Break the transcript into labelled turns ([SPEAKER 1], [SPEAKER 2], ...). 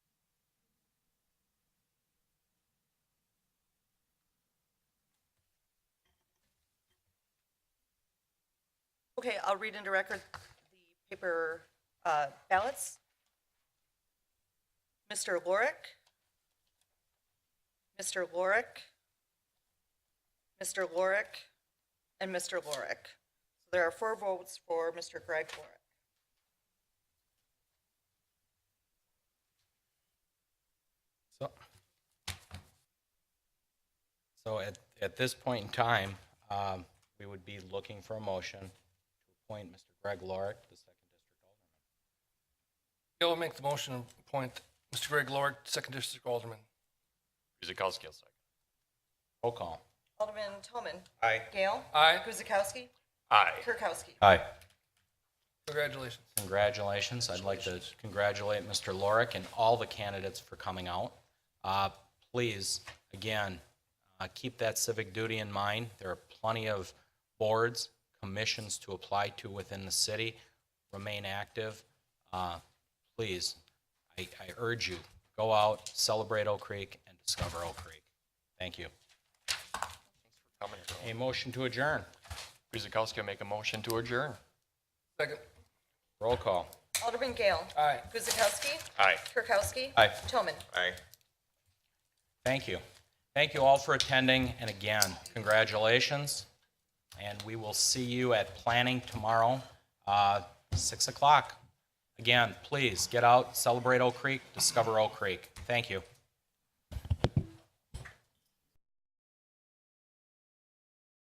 [SPEAKER 1] Okay, I'll read into record the paper uh, ballots. Mr. Lorick. Mr. Lorick. Mr. Lorick. And Mr. Lorick. So There are four votes for Mr. Greg Lorick.
[SPEAKER 2] So, so at, at this point in time, um, we would be looking for a motion to appoint Mr. Greg Lorick, the second district alderman.
[SPEAKER 3] Yeah, will make the motion and appoint Mr. Greg Lord, second district alderman.
[SPEAKER 4] Guzekowski, I'll second.
[SPEAKER 2] Roll call.
[SPEAKER 1] Alderman Toman.
[SPEAKER 2] Aye.
[SPEAKER 1] Gale.
[SPEAKER 3] Aye.
[SPEAKER 1] Guzekowski.
[SPEAKER 4] Aye.
[SPEAKER 1] Kirkowski.
[SPEAKER 2] Aye.
[SPEAKER 3] Congratulations.
[SPEAKER 2] Congratulations. I'd like to congratulate Mr. Lorick and all the candidates for coming out. Uh, Please, again, uh, keep that civic duty in mind. There are plenty of boards, commissions to apply to within the city. Remain active. Uh, Please, I I urge you, go out, celebrate Oak Creek, and discover Oak Creek. Thank you.
[SPEAKER 4] Coming.
[SPEAKER 2] A motion to adjourn.
[SPEAKER 4] Guzekowski will make a motion to adjourn.
[SPEAKER 3] Second.
[SPEAKER 2] Roll call.
[SPEAKER 1] Alderman Gale.
[SPEAKER 3] Aye.
[SPEAKER 1] Guzekowski.
[SPEAKER 4] Aye.
[SPEAKER 1] Kirkowski.
[SPEAKER 2] Aye.
[SPEAKER 1] Toman.
[SPEAKER 4] Aye.
[SPEAKER 2] Thank you. Thank you all for attending, and again, congratulations. And we will see you at planning tomorrow, uh, 6 o'clock. Again, please, get out, celebrate Oak Creek, discover Oak Creek. Thank you.